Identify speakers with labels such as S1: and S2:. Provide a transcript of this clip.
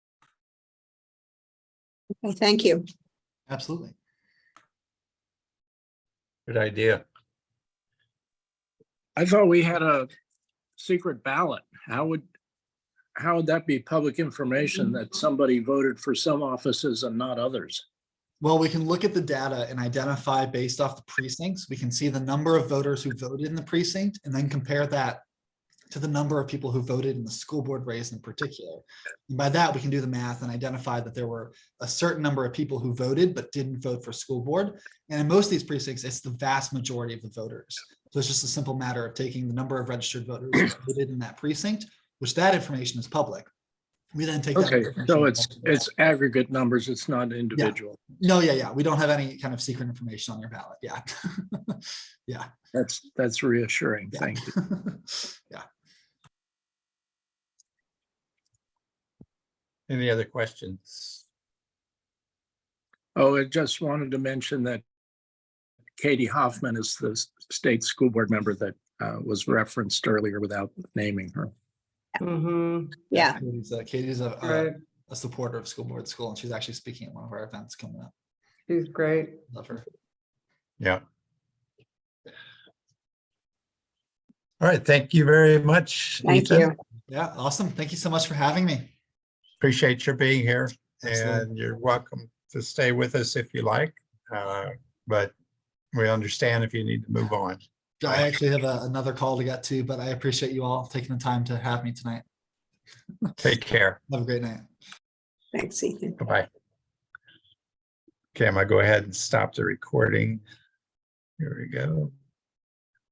S1: Okay, Thank you.
S2: Absolutely.
S3: Good idea.
S4: I thought we had a secret ballot. How would, how would that be public information that somebody voted for some offices and not others?
S2: Well, we can look at the data and identify based off the precincts. We can see the number of voters who voted in the precinct and then compare that to the number of people who voted in the school board race in particular. And by that, we can do the math and identify that there were a certain number of people who voted but didn't vote for school board. And in most of these precincts, it's the vast majority of the voters. So it's just a simple matter of taking the number of registered voters who voted in that precinct, which that information is public. We then take. that
S4: Okay, so
S2: information-
S4: it's, it's aggregate numbers. It's not individual.
S2: No, yeah, yeah. We don't have any kind of secret information on your ballot. Yeah. yeah.
S4: That's, that's reassuring.
S2: Yeah.
S4: Thank you.
S2: yeah.
S3: Any other questions?
S4: Oh, I just wanted to mention that Katie Hoffman is the s- state school board member that uh, was referenced earlier without naming her.
S5: Mhm.
S1: Yeah,
S2: Katie's a, Katie's a, a,
S5: Right.
S2: a supporter of school board school, and she's actually speaking at one of our events coming up.
S5: She's great.
S2: Love her.
S3: Yeah. All right, thank you very much.
S1: thank
S3: Ethan.
S1: you.
S2: Yeah. Awesome. Thank you so much for having me.
S3: Appreciate your being here
S2: Absolutely.
S3: and you're welcome to stay with us if you like. uh, But we understand if you need to move on.
S2: I actually have a, another call to get to, but I appreciate you all taking the time to have me tonight.
S3: Take care.
S2: Have a great night.
S1: Thanks, Ethan.
S3: Bye-bye. Okay, I'm gonna go ahead and stop the recording. Here we go.